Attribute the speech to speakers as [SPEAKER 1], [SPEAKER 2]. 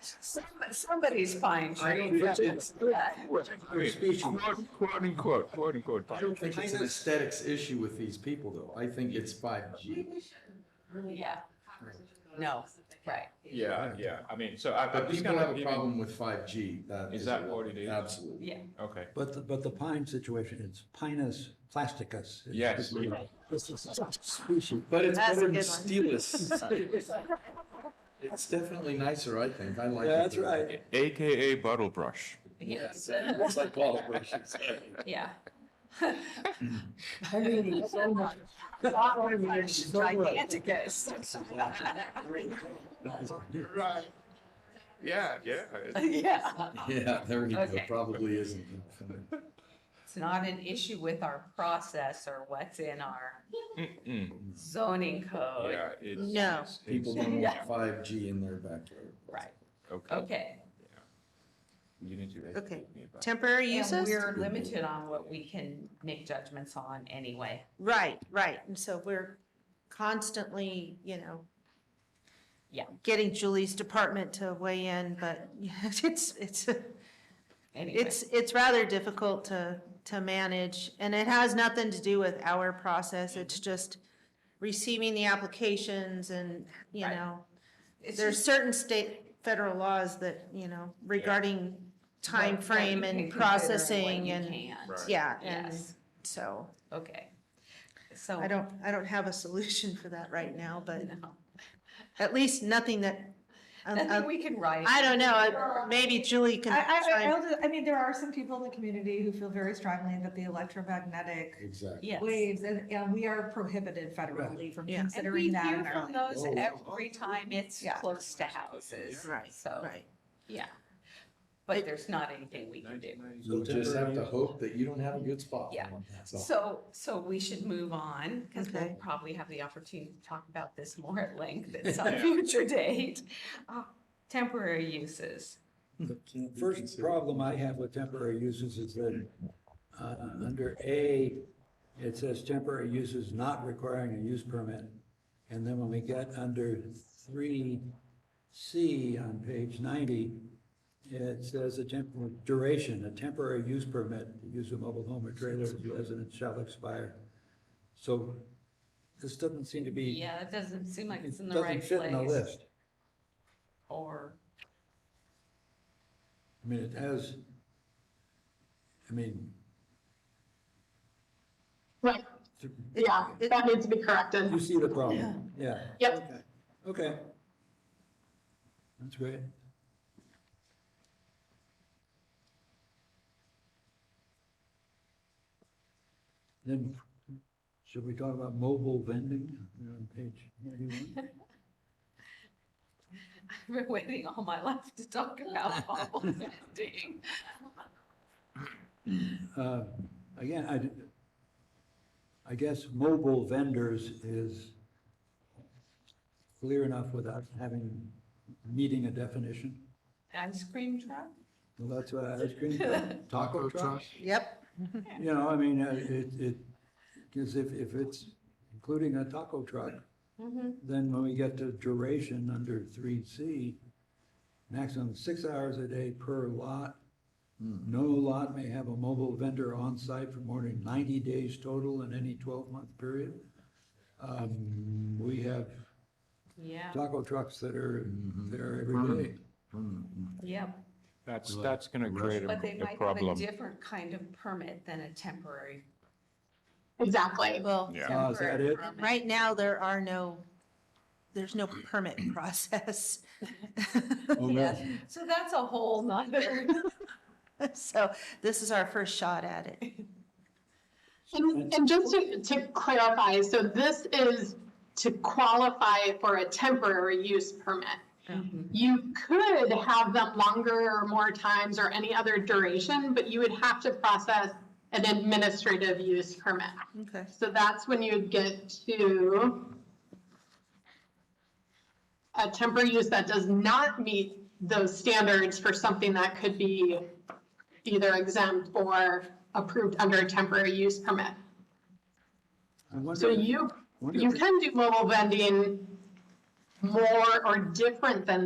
[SPEAKER 1] Some- Somebody's fine.
[SPEAKER 2] I don't
[SPEAKER 1] Shane.
[SPEAKER 2] think it's-
[SPEAKER 1] Yeah.
[SPEAKER 2] Speech.
[SPEAKER 3] Quote, quote unquote, quote unquote.
[SPEAKER 2] I don't think it's an aesthetics issue with these people, though. I think it's five G.
[SPEAKER 1] Yeah. No, right.
[SPEAKER 3] Yeah, yeah, I mean, so I,
[SPEAKER 2] But
[SPEAKER 3] I'm just
[SPEAKER 2] people
[SPEAKER 3] gonna
[SPEAKER 2] have a problem with five G.
[SPEAKER 3] Is that what it is?
[SPEAKER 2] Absolutely.
[SPEAKER 1] Yeah.
[SPEAKER 3] Okay,
[SPEAKER 4] But, the- but the pine situation, it's Pinus plasticus. It's-
[SPEAKER 3] Yes.
[SPEAKER 4] This is a species.
[SPEAKER 2] But it's
[SPEAKER 5] That's a
[SPEAKER 2] better than
[SPEAKER 5] good one.
[SPEAKER 2] Steelers. It's definitely nicer, I think. I like it.
[SPEAKER 4] That's right.
[SPEAKER 3] AKA bottle brush.
[SPEAKER 1] Yes.
[SPEAKER 2] It's like Paul's brush, exactly.
[SPEAKER 1] Yeah.
[SPEAKER 4] I mean, it's so much.
[SPEAKER 1] Giganticus.
[SPEAKER 3] Right. Yeah, yeah.
[SPEAKER 1] Yeah.
[SPEAKER 2] Yeah, there you go.
[SPEAKER 1] Okay.
[SPEAKER 2] Probably isn't.
[SPEAKER 1] It's not an issue with our process or what's in our
[SPEAKER 3] Mm-mm.
[SPEAKER 1] zoning code.
[SPEAKER 3] Mm. Yeah, it's.
[SPEAKER 5] No.
[SPEAKER 3] it's-
[SPEAKER 2] People
[SPEAKER 3] it's-
[SPEAKER 2] don't
[SPEAKER 1] Yeah.
[SPEAKER 2] want five G in their backyard.
[SPEAKER 1] Right,
[SPEAKER 2] Oh.
[SPEAKER 3] Okay.
[SPEAKER 1] okay.
[SPEAKER 3] You need to.
[SPEAKER 5] Okay.
[SPEAKER 3] educate me about-
[SPEAKER 5] Temporary
[SPEAKER 1] And
[SPEAKER 5] uses?
[SPEAKER 1] we're limited on what we can make judgments on anyway.
[SPEAKER 5] Right, right. And so we're constantly, you know,
[SPEAKER 1] Yeah.
[SPEAKER 5] getting Julie's department to weigh in, but it's, it's,
[SPEAKER 1] Anyway,
[SPEAKER 5] it's, it's rather difficult to, to manage. And it has nothing to do with our
[SPEAKER 1] Mm-hmm.
[SPEAKER 5] process. It's just receiving the applications and, you
[SPEAKER 1] Right.
[SPEAKER 5] know,
[SPEAKER 1] it's
[SPEAKER 5] there's
[SPEAKER 1] just
[SPEAKER 5] certain state, federal laws that, you know, regarding time
[SPEAKER 1] what- what you
[SPEAKER 5] frame
[SPEAKER 1] can
[SPEAKER 5] and
[SPEAKER 1] consider what
[SPEAKER 5] processing
[SPEAKER 1] you
[SPEAKER 5] and,
[SPEAKER 1] can't.
[SPEAKER 3] Right.
[SPEAKER 5] yeah, and
[SPEAKER 1] Yes,
[SPEAKER 5] so.
[SPEAKER 1] okay. So.
[SPEAKER 5] I don't, I don't have a solution for that right now, but
[SPEAKER 1] No.
[SPEAKER 5] at least nothing that, um,
[SPEAKER 1] Nothing
[SPEAKER 5] uh,
[SPEAKER 1] we can write.
[SPEAKER 5] I don't know, uh, maybe Julie can
[SPEAKER 6] I, I,
[SPEAKER 5] try.
[SPEAKER 6] I'll just- I mean, there are some people in the community who feel very strongly that the electromagnetic
[SPEAKER 2] Exactly.
[SPEAKER 1] Yes.
[SPEAKER 6] waves, and, and we are prohibited federally from
[SPEAKER 5] Yeah.
[SPEAKER 1] And we
[SPEAKER 6] considering that
[SPEAKER 1] hear
[SPEAKER 6] in our
[SPEAKER 1] from
[SPEAKER 6] language.
[SPEAKER 4] Oh.
[SPEAKER 1] those every time it's
[SPEAKER 6] Yeah.
[SPEAKER 1] close to houses.
[SPEAKER 5] Right,
[SPEAKER 1] So,
[SPEAKER 5] right.
[SPEAKER 1] yeah. But there's not anything we can do.
[SPEAKER 2] You'll just have to hope that you don't have a good spot.
[SPEAKER 1] Yeah.
[SPEAKER 2] That's all.
[SPEAKER 1] So, so we should move on because we'll
[SPEAKER 5] Okay.
[SPEAKER 1] probably have the opportunity to talk about this more at length at some future date. Uh, Temporary uses.
[SPEAKER 4] The First problem I have with temporary uses is that, uh, under A, it says temporary uses not requiring a use permit. And then when we get under three C on page ninety, it says a temporary duration, a temporary use permit to use a mobile home or trailer as residence shall expire. So this doesn't seem to be.
[SPEAKER 1] Yeah, that doesn't seem like
[SPEAKER 4] It
[SPEAKER 1] it's in the
[SPEAKER 4] doesn't
[SPEAKER 1] right
[SPEAKER 4] fit in the
[SPEAKER 1] place.
[SPEAKER 4] list.
[SPEAKER 1] Or,
[SPEAKER 4] I mean, it has, I mean,
[SPEAKER 7] Right,
[SPEAKER 4] th-
[SPEAKER 7] yeah, that needs to be corrected.
[SPEAKER 4] you see the problem, yeah.
[SPEAKER 7] Yep.
[SPEAKER 4] Okay. Okay. That's great. Then, should we talk about mobile vending You're on page ninety-one?
[SPEAKER 1] I've been waiting all my life to talk about bubble vending.
[SPEAKER 4] Uh, Again, I, did- I guess mobile vendors is clear enough without having, needing a definition.
[SPEAKER 1] Ice cream truck?
[SPEAKER 4] Well, that's what ice cream, truck, taco truck,
[SPEAKER 5] Yep,
[SPEAKER 4] you know, I mean, uh, it, it, because if, if it's including a taco truck,
[SPEAKER 5] Mm-hmm.
[SPEAKER 4] then when we get to duration under three C, maximum six hours a day per lot. No lot may have a mobile vendor on site for more than ninety days total in any twelve-month period. Um, we have
[SPEAKER 1] Yeah,
[SPEAKER 4] taco trucks that are there every day.
[SPEAKER 2] Hmm.
[SPEAKER 1] yep.
[SPEAKER 3] That's, that's gonna create
[SPEAKER 1] But they
[SPEAKER 3] a- a
[SPEAKER 1] might have a
[SPEAKER 3] problem.
[SPEAKER 1] different kind of permit than a temporary.
[SPEAKER 7] Exactly.
[SPEAKER 5] well,
[SPEAKER 3] Yeah.
[SPEAKER 4] Ah, is that
[SPEAKER 1] temporary
[SPEAKER 4] it?
[SPEAKER 1] permit.
[SPEAKER 5] right now, there are no, there's no permit process.
[SPEAKER 4] Oh,
[SPEAKER 1] Yeah. So that's a whole nother.
[SPEAKER 5] So this is our first shot at it.
[SPEAKER 7] And, and just to, to clarify, so this is to qualify for a temporary use permit.
[SPEAKER 1] Mm-hmm.
[SPEAKER 7] You could have them longer or more times or any other duration, but you would have to process an administrative use permit.
[SPEAKER 5] Okay.
[SPEAKER 7] So that's when you get to a temporary use that does not meet those standards for something that could be either exempt or approved under a temporary use permit.
[SPEAKER 4] I wonder-
[SPEAKER 7] So you,
[SPEAKER 4] wonder
[SPEAKER 7] you
[SPEAKER 4] if-
[SPEAKER 7] can do mobile vending more or different than